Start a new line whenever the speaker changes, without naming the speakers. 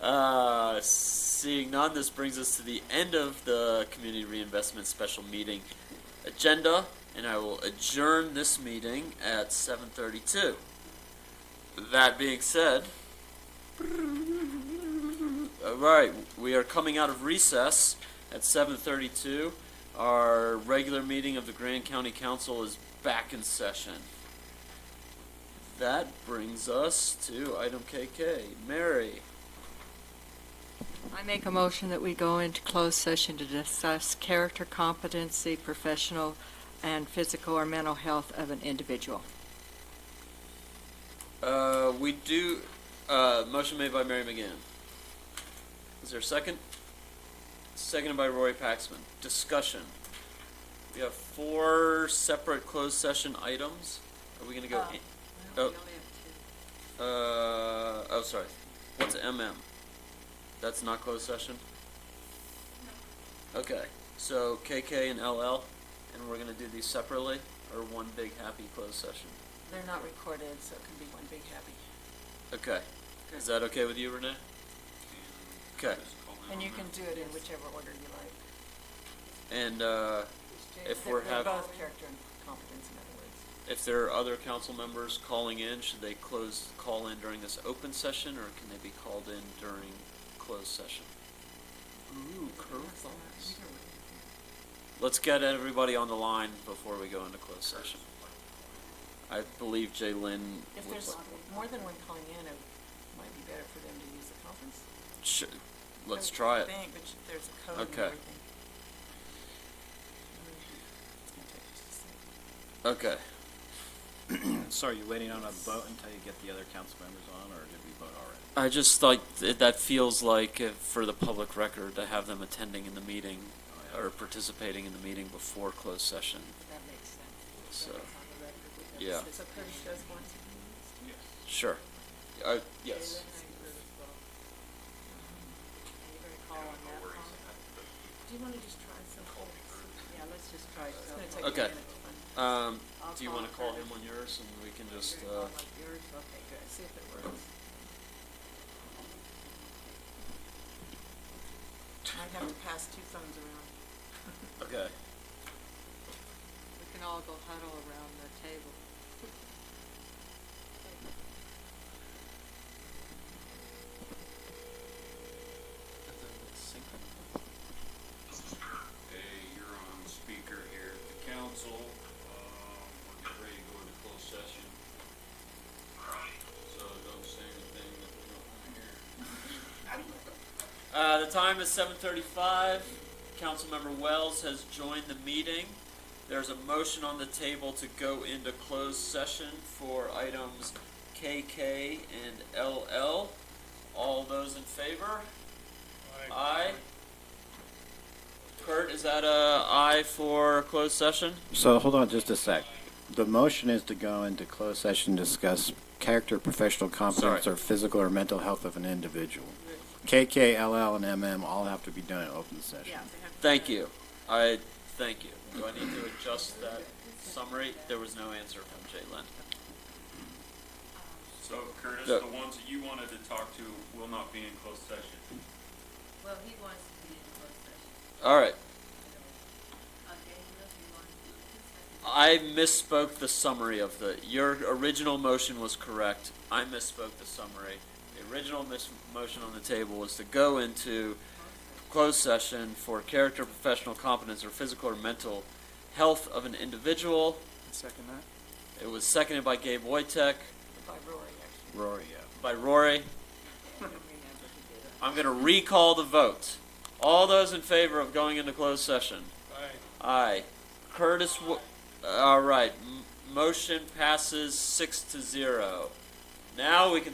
Uh, seeing none, this brings us to the end of the community reinvestment special meeting agenda, and I will adjourn this meeting at 7:32. That being said, all right, we are coming out of recess at 7:32. Our regular meeting of the Grand County Council is back in session. That brings us to item KK. Mary.
I make a motion that we go into closed session to discuss character competency, professional and physical or mental health of an individual.
Uh, we do. Uh, motion made by Mary McGann. Is there a second? Seconded by Rory Paxman. Discussion. We have four separate closed session items. Are we going to go? in- Oh. we only Uh, oh, sorry. What's MM? That's not closed session? Okay, so KK and LL, and we're gonna do these separately, or one big happy closed session?
They're not recorded, so it can be one big happy.
Okay, is that okay with you, Renee? Okay,
And you can do it in whichever order you like.
and, uh, If
They're-
we're
they're
hav-
Both character and competence, in other words.
if there are other council members calling in, should they close, call in during this open session, or can they be called in during closed session? Ooh, curveballs. Let's get everybody on the line before we go into closed session. I believe Jay Lynn
If
was,
there's more than one calling in, it might be better for them to use the conference.
Sh- let's
I
try it.
think, but you- there's a code and
Okay.
everything. It's gonna take just a second.
Okay,
So are you waiting on a vote until you get the other council members on, or did we vote already?
I just like, th- that feels like uh, for the public record to have them attending in the meeting
Oh, yeah.
or participating in the meeting before closed session,
That makes sense.
so,
That's on the record with us.
yeah.
So Curtis does want to be used?
sure. Uh, yes.
Do you want to just try some?
Yeah, let's just try
It's gonna take a
Okay.
minute to find-
Um,
I'll
do you wanna
call
call him on yours and we can just, uh,
Okay, good.
See if it works. I'd have to pass two phones around.
okay.
We can all go huddle around the table.
Hey, you're on speaker here at the council. Um, We're getting ready to go into closed session. So don't say anything that we don't want to hear.
Uh, the time is seven thirty-five. Councilmember Wells has joined the meeting. There's a motion on the table to go into closed session for items KK and LL. All those in favor? Aye. Kurt, is that a aye for closed session?
So hold on just a sec. The motion is to go into closed session, discuss character, professional competence,
Sorry.
or physical or mental health of an individual. KK, LL, and MM all have to be done in open session.
Thank you. I, thank you. Do I need to adjust that summary? There was no answer from Jalen.
So Curtis,
Look.
the ones that you wanted to talk to will not be in closed session.
Well, he wants to be in closed session.
All right.
Okay, he knows he wants to be in closed session.
I misspoke the summary of the, your original motion was correct. I misspoke the summary. The original mis- motion on the table was to go into closed session for character, professional competence, or physical or mental health of an individual.
Second that.
It was seconded by Gabe Wojtek,
By Rory, actually.
Rory, yeah.
by Rory.
Remember to do that.
I'm going to recall the vote. All those in favor of going into closed session? Aye. Curtis, uh, Wo- all right, m- motion passes six to zero. Now we can